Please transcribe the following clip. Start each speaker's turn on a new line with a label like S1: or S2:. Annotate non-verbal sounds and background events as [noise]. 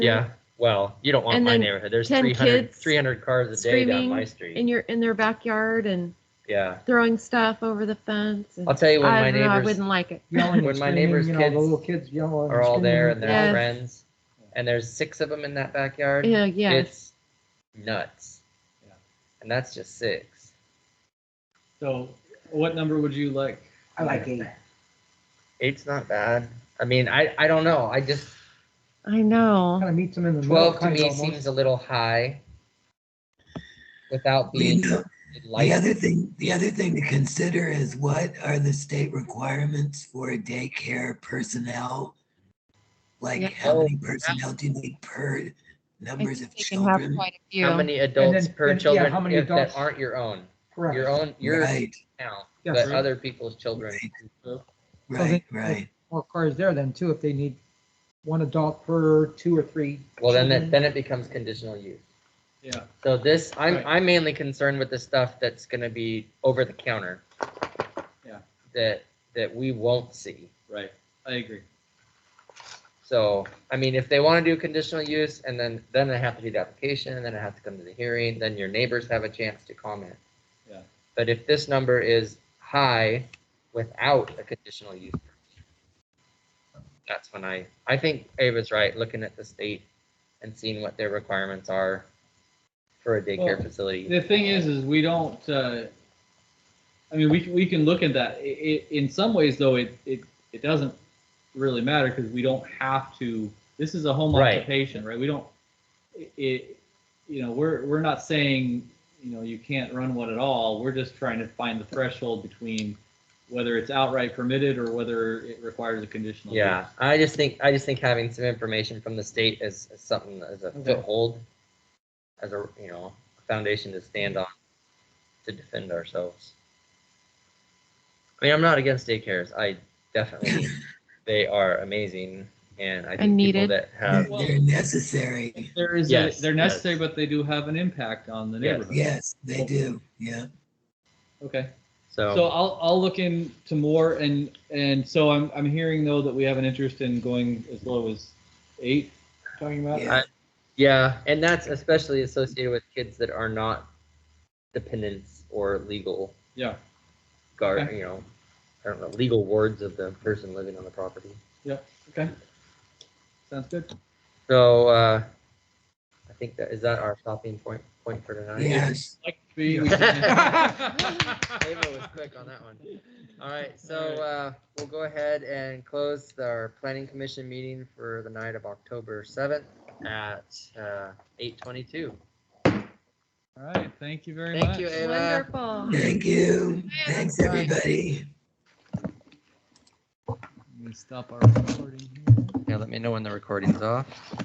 S1: Yeah, well, you don't want
S2: And
S1: my
S2: then
S1: neighborhood. There's
S2: 10
S1: 300,
S2: kids
S1: 300 cars a day down my
S2: screaming
S1: street.
S2: in your in their backyard and
S1: Yeah.
S2: throwing stuff over the fence. And
S1: I'll tell you when
S2: I
S1: my
S2: don't know, I
S1: neighbors
S2: wouldn't like it.
S3: Yelling and
S1: When my
S3: screaming,
S1: neighbor's
S3: you know,
S1: kids
S3: The little kids yelling.
S1: are all there and they're
S2: Yes.
S1: friends, and there's six of them in that backyard,
S2: Yeah, yeah.
S1: it's nuts.
S4: Yeah.
S1: And that's just six.
S4: So what number would you like?
S3: I like eight.
S1: Eight's not bad. I mean, I, I don't know. I just,
S2: I know.
S3: Kind of meets them in the middle.
S1: 12 to
S3: kinda
S1: me
S3: almost.
S1: seems a little high without being
S5: The
S1: light.
S5: other thing, the other thing to consider is what are the state requirements for daycare personnel?
S2: Yeah.
S5: Like, how many
S1: Oh,
S5: personnel do you need per
S2: I
S5: numbers
S2: think
S5: of
S2: they can have
S5: children?
S2: quite a
S1: How
S2: few.
S1: many adults
S3: then-
S1: per
S3: then, yeah,
S1: children
S3: how many
S1: if that
S3: adults?
S1: aren't your own?
S3: Correct.
S1: Your own, your
S5: Right,
S1: count,
S3: Yes.
S1: but other people's children.
S5: right,
S3: they-
S5: right.
S3: More cars there then too, if they need one adult per two or three.
S1: Well, then,
S3: children.
S1: that then it becomes conditional use.
S4: Yeah,
S1: So this, I'm,
S4: Right.
S1: I'm mainly concerned with the stuff that's gonna be over the counter.
S4: Yeah.
S1: That, that we won't see.
S4: right. I agree.
S1: So, I mean, if they wanna do conditional use and then, then they have to do the application and then it has to come to the hearing, then your neighbors have a chance to comment.
S4: Yeah.
S1: But if this number is high without a conditional use. permit, That's when I, I think Ava's right, looking at the state and seeing what their requirements are for a daycare
S4: Well,
S1: facility.
S4: The thing is, is we don't, uh, I mean, we, can- we can look at that. I i in some ways though, it, it, it doesn't really matter because we don't have to, this is a home
S1: Right.
S4: occupation, right? We don't, i- it, you know, we're, we're not saying, you know, you can't run one at all. We're just trying to find the threshold between whether it's outright permitted or whether it requires a conditional. use.
S1: Yeah, I just think, I just think having some information from the state is, is something, as a
S4: Okay.
S1: foothold, as a, you know, foundation to stand on, to defend ourselves. I mean, I'm not against daycares, I
S4: [laughs]
S1: definitely, they are amazing, and I think people
S2: needed.
S1: that
S5: They're
S4: [laughs]
S1: have,
S4: Well-
S5: they're necessary.
S4: There is, a-
S1: Yes,
S4: they're
S1: yes.
S4: necessary, but they do have an impact on the
S1: Yes.
S4: neighborhood.
S5: Yes, they do, yeah.
S4: Okay. So
S1: so,
S4: I'll, I'll look into more and, and so I'm, I'm hearing though that we have an interest in going as low as eight, you're talking about?
S5: Yeah.
S1: yeah, and that's especially associated with kids that are not dependents or legal
S4: Yeah,
S1: guard,
S4: Okay.
S1: you know, I don't know, legal wards of the person living on the property.
S4: okay. Sounds good.
S1: So, uh, I think that, is that our stopping point, point for tonight?
S5: Yes,
S4: Like to be- we [laughs]
S1: Ava
S4: can-
S1: was quick on that one. All right, so, uh, we'll go ahead and close our planning commission meeting for the night of October seventh at, uh, eight twenty-two.
S4: All right, thank you very much.
S1: Thank you, Ava.
S2: Wonderful.
S5: thank you.
S2: Yeah,
S5: Thanks,
S2: bye.
S5: everybody.
S4: Let me stop our recording here.
S1: Yeah, let me know when the recording's off.